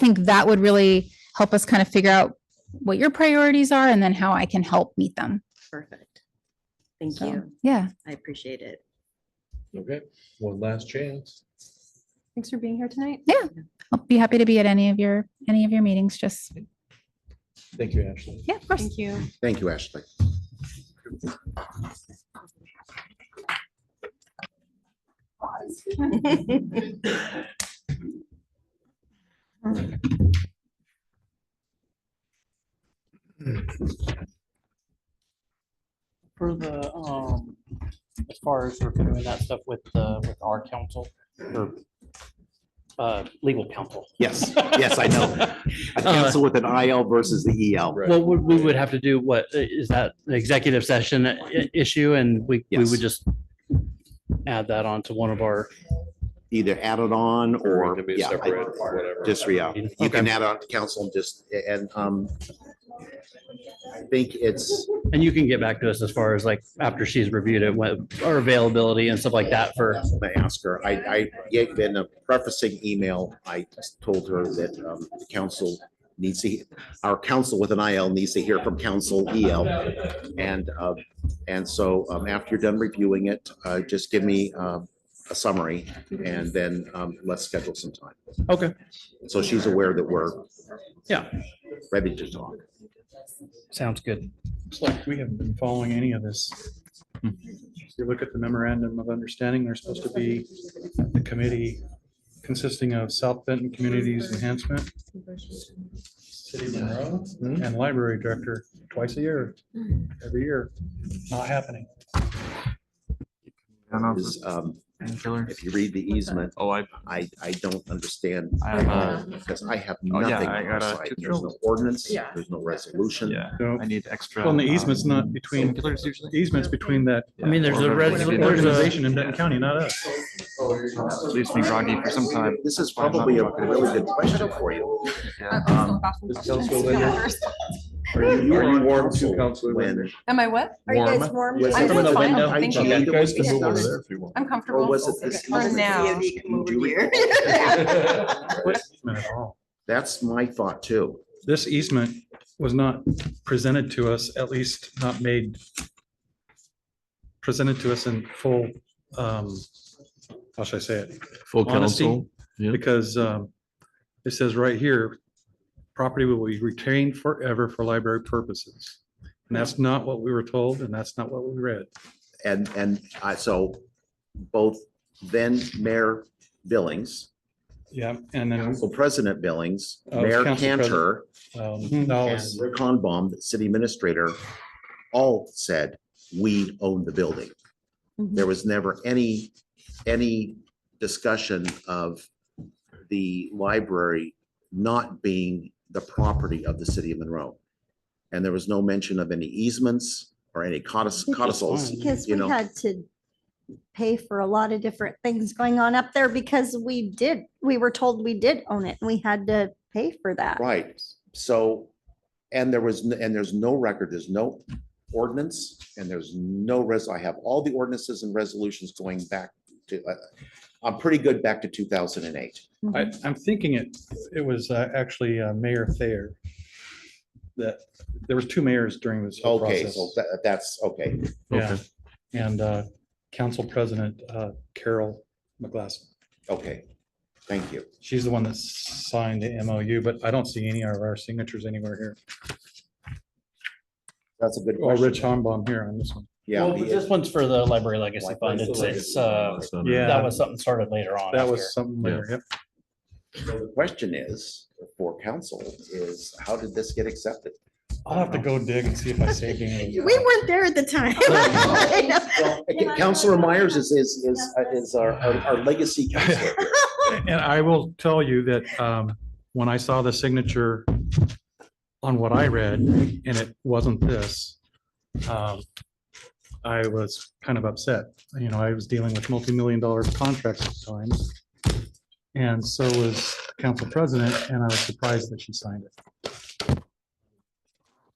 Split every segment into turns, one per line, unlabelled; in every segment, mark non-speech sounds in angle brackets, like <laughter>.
think that would really help us kind of figure out what your priorities are and then how I can help meet them.
Perfect. Thank
So,
you.
Yeah.
I appreciate it.
Okay, one last chance.
Thanks for being here tonight.
I'll be happy to be at any of your, any of your meetings. Just,
Thank you, Ashley.
yeah, of course.
Thank you.
Thank you, Ashley.
For the, um, as far as we're doing that stuff with, uh, with our council, or, uh, legal counsel.
Yes, yes, I
<laughs>
know. A council with an IL versus the E EL.
Right.
Well, we, we would have to do what, i- is that an executive session i- issue, and we, we
Yes.
would just add that on to one of our,
Either add it on
Or it
or,
can be
yeah, I-
separate, whatever.
just re-out. You can
Okay.
add on to council and just, and, um, I think it's,
and you can get back to us as far as like, after she's reviewed it, what, our availability and stuff like that for,
I asked her, I, I, gave in a prefacing email, I told her that, um, the council needs to, our council with an IL needs to hear from council EL. And, uh, and so, um, after you're done reviewing it, uh, just give me, um, a summary and then, um, let's schedule some time.
okay,
So she's aware that we're.
Yeah.
Ready to talk.
sounds good.
It's like we haven't been following any of this. If you look at the memorandum of understanding, there's supposed to be the committee consisting of South Benton Communities Enhancement, City Monroe, and Library Director twice a year, every year. Not happening.
I don't know.
Is, um,
Painkiller.
if you read the easement,
Oh, I,
I, I don't understand. uh,
I have a,
Because I have
Oh, yeah,
nothing
I
on our
got a
side.
tooth
There's no
drill.
ordinance, there's no resolution.
yeah,
So,
I need extra.
well, and the easement's
um,
not between,
Painkillers usually.
easement's between that
I mean, there's a
Or-
res-
Yeah.
there's a-
organization in Benton County, not us.
Leaves me groggy for some time.
This is probably a really good question for you.
Yeah.
Um, Are you are you warm
Council, Councilor
when?
Linder.
Am I what?
Are you guys warm?
was
I'm
it
fine,
when
thank
I
you.
either was discussed,
if you want.
I'm comfortable.
Or was it this?
For
easement
now.
discussion? Do you
here.
<laughs> recall?
What easement at all?
That's my thought too.
this easement was not presented to us, at least not made presented to us in full, um, how should I say it?
Full
Honesty.
council. Yeah.
Because, um, it says right here, property will be retained forever for library purposes. And that's not what we were told and that's not what we read.
And, and I, so both then Mayor Billings,
Yeah, and then,
Council President Billings,
Oh, it's
Mayor
Council President.
Cantor,
um, that
and
was-
Rick Honbaum, the city administrator, all said, we own the building.
Mm-hmm.
There was never any, any discussion of the library not being the property of the city of Monroe. And there was no mention of any easements or any codicils. codicils.
Because
you
we
know.
had to pay for a lot of different things going on up there because we did, we were told we did own it and we had to pay for that.
Right, so, and there was, n- and there's no record, there's no ordinance, and there's no res, I have all the ordinances and resolutions going back to, uh, I'm pretty good back to two thousand and eight.
I, I'm thinking it, it was uh, actually uh, Mayor Thayer. That, there was two mayors during this whole
Okay,
process.
so tha- that's, okay,
Yeah, and uh, Council President uh, Carol McGlass.
okay, thank you.
She's the one that signed the MOU, but I don't see any of our signatures anywhere here.
That's a good
Or
question.
Rich Hombom here on this one.
Yeah,
Well,
the-
This one's for the library legacy
Like,
fund.
that's
It's,
the
it's,
legacy
uh,
So-
Yeah.
that was something started later on.
That
after.
was something later, yep.
the question is, for council, is how did this get accepted?
I'll have to go dig and see if I saved any.
We
of them.
weren't there at the time. <laughs>
Well, okay, Councilor Myers is, is, is, is our, our our legacy counselor.
<laughs>
And I will tell you that um, when I saw the signature on what I read, and it wasn't this, um, I was kind of upset. You know, I was dealing with multi-million dollar contracts at times. And so was council president, and I was surprised that she signed it.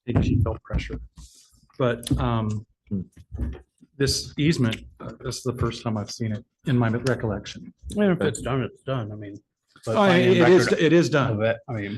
I think she felt pressure. But um, this easement, uh, this is the first time I've seen it in my recollection.
Well, If it's done, it's done. I mean,
but
Oh, It
finding
it
record
is, it is done.
Of it, I mean.